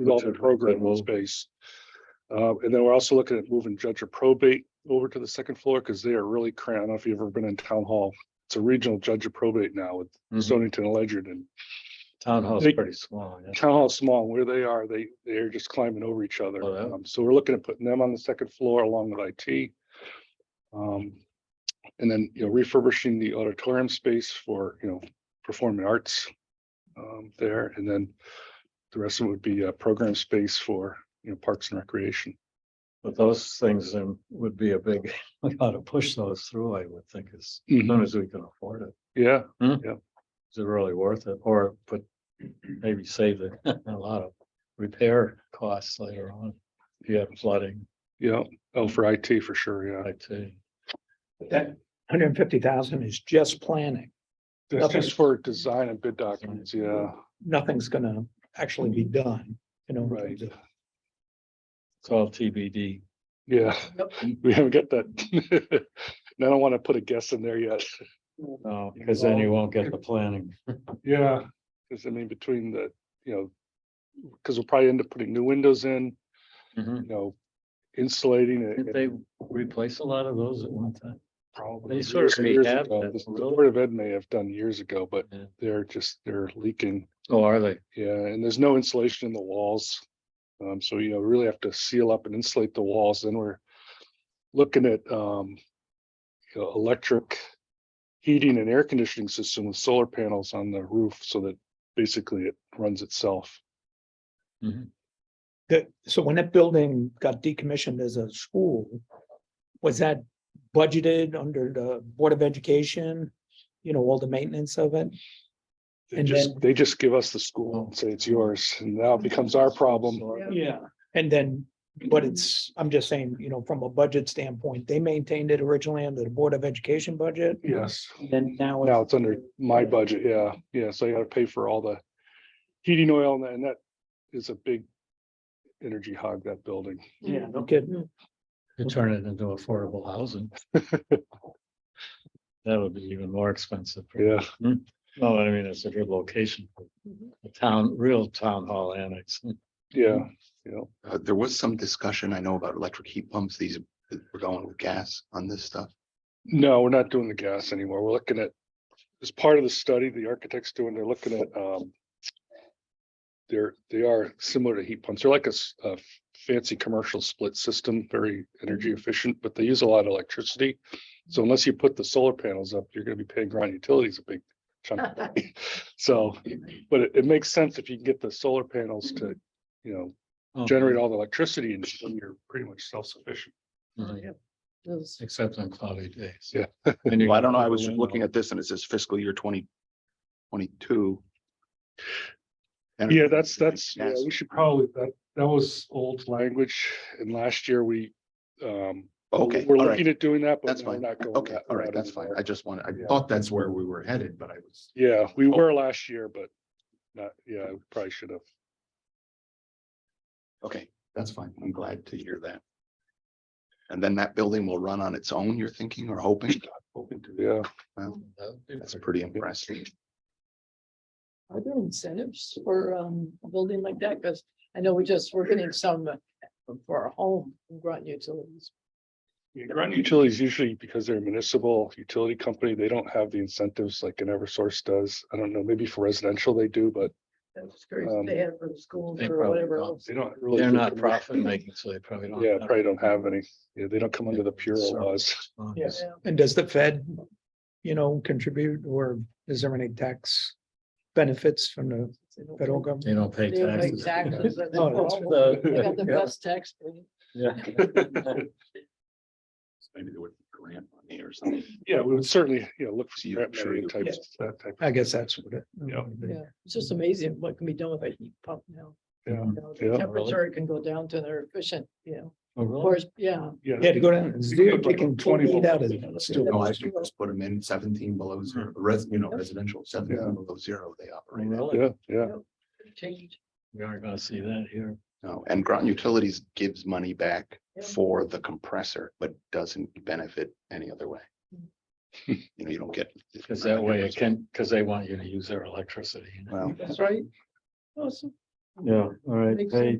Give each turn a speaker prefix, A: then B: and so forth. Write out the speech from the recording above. A: development program space. Uh, and then we're also looking at moving judge of probate over to the second floor because they are really cramped. I don't know if you've ever been in town hall. It's a regional judge of probate now with
B: Mhm.
A: Stonington, and Ledyard and
B: Town hall's
A: They-
B: pretty small. yeah.
A: town hall is small. Where they are, they, they're just climbing over each other.
B: Oh, yeah.
A: Um, So we're looking at putting them on the second floor along with IT. Um, and then, you know, refurbishing the auditorium space for, you know, performing arts um, there, and then the rest of it would be a program space for, you know, parks and recreation.
B: But those things um, would be a big, we ought to push those through, I would think, as
A: Mhm.
B: soon as we can afford it.
A: Yeah,
B: Is it really worth it? Or put, maybe save the- a lot of repair costs later on. If you have flooding,
A: yeah. Oh, for IT for sure, yeah.
B: I too.
C: That hundred and fifty thousand is just planning.
A: That's
C: Okay.
A: just for design and bid documents, yeah.
C: Nothing's gonna actually be
A: Mm-hmm.
C: done, you know. in terms of-
B: It's all TBD.
A: Yeah, we haven't got that. And I don't want to put a guess in there yet.
B: No, because then you won't get the planning.
A: Yeah, because I mean, between the, you know, because we'll probably end up putting new windows in,
B: Didn't
A: you know, insulating it. it
B: they replace a lot of those at one time?
A: probably
B: they sort of
A: years and years
B: rehab
A: ago.
B: that
A: This- The
B: room.
A: Board of Ed may have done years ago, but
B: Yeah.
A: they're just, they're leaking.
B: Oh, are they?
A: Yeah, and there's no insulation in the walls. Um, so you know, really have to seal up and insulate the walls. Then we're looking at um, you know, electric heating and air conditioning system with solar panels on the roof so that basically it runs itself.
C: That, so when that building got decommissioned as a school, was that budgeted under the Board of Education? You know, all the maintenance of it?
A: They
C: And
A: just,
C: then-
A: they just give us the school and say it's yours and now it becomes our problem.
C: Yeah. And then, but
A: Mm-hmm.
C: it's, I'm just saying, you know, from a budget standpoint, they maintained it originally under the Board of Education budget.
A: Yes,
C: Then now.
A: now it's under my budget. Yeah, yeah. So you gotta pay for all the heating oil and that- and that is a big energy hog, that building.
C: Yeah, no kidding.
B: You turn it into affordable housing. That would be even more expensive.
A: Yeah,
B: No, I mean, it's a good location. for A town, real town hall annex.
A: yeah,
C: Mm-hmm.
A: yeah.
D: Uh, there was some discussion, I know about electric heat pumps, these, we're going with gas on this stuff.
A: No, we're not doing the gas anymore. We're looking at, as part of the study, the architects doing, they're looking at, um. They're, they are similar to heat pumps. They're like a, s- a fancy commercial split system, very energy efficient, but they use a lot of electricity. So unless you put the solar panels up, you're gonna be paying ground utilities a big chunk. of money. So, but it, it makes sense if you can get the solar panels to, you know,
B: Oh,
A: generate all the electricity and then you're pretty much self-sufficient. Mm-hmm.
B: mhm,
E: Those-
B: Except on cloudy days.
A: Yeah.
B: And you-
D: Well, I don't know, I was just looking at this and it says fiscal year twenty twenty-two. And-
A: Yeah, that's, that's, yeah,
D: Yes.
A: we should probably, that, that was old language, and last year we, um.
D: Okay,
A: We're
D: all
A: looking
D: right,
A: at doing that, but
D: That's
A: we're
D: fine.
A: not going.
D: okay,
A: that
D: all right,
A: route
D: that's fine.
A: anymore.
D: I just wanted, I
A: Yeah.
D: thought that's where we were headed, but I was.
A: Yeah, we
D: Oh.
A: were last year, but not, yeah, we probably should have.
D: Okay, that's fine. I'm glad to hear that. And then that building will run on its own, you're thinking or hoping? Hoping to.
A: Yeah,
B: That would be
D: That's
B: pretty-
D: pretty impressive.
E: Are there incentives for um a building like that? Because I know we just, we're getting some uh, for our home grunt utilities.
A: ground utilities usually, because they're a municipal utility company, they don't have the incentives like an Eversource does. I don't know, maybe for residential they do, but
E: I was curious
A: Um,
E: if they had for the schools
B: they
E: or
B: probably
E: whatever
B: don't.
E: else.
A: they don't really.
B: They're
A: do
B: not
A: commercial.
B: profit making, so they probably don't.
A: Yeah,
B: have-
A: probably don't have any. Yeah, they don't come under the Pura
B: Service
A: laws.
B: response.
C: Yes.
E: Yeah.
C: And does the Fed, you know, contribute or is there any tax benefits from the
E: They don't-
C: federal government?
B: They don't pay
E: They don't pay
B: taxes.
E: taxes, and
C: No,
E: that's
C: that's-
E: all. They got the
C: Yeah.
E: best tax. break.
B: Yeah.
D: Maybe there would be grant money or something.
A: Yeah, we would certainly, you know, look for
D: You-
A: grant
D: sure
A: money
D: you-
A: types, that type.
C: I guess that's what it.
A: Yeah.
E: Yeah, it's just amazing what can be done with a heat pump now.
A: Yeah,
E: You know,
A: yeah.
E: the Temperature can go down to their efficient, you know,
B: Oh,
E: of
B: really?
E: course, yeah.
C: Yeah, to go down and
A: You
C: zero,
A: could put
C: taking
A: like
C: twenty
A: 20
C: feet out of.
A: volts.
D: No, I
C: it.
D: should just put them in seventeen below zero, res, you know, residential seventeen below zero, they
B: Oh,
D: operate. at.
B: Really?
A: Yeah, yeah.
E: Change.
B: We aren't gonna see that here.
D: No, uh, and Groton Utilities gives money back
E: Yeah.
D: for the compressor, but doesn't benefit any other way. You know, you don't get.
B: Cause that way it can, cause they want you to use their electricity.
D: Well,
E: That's right. Awesome.
B: Yeah, all right,
E: Makes
B: hey,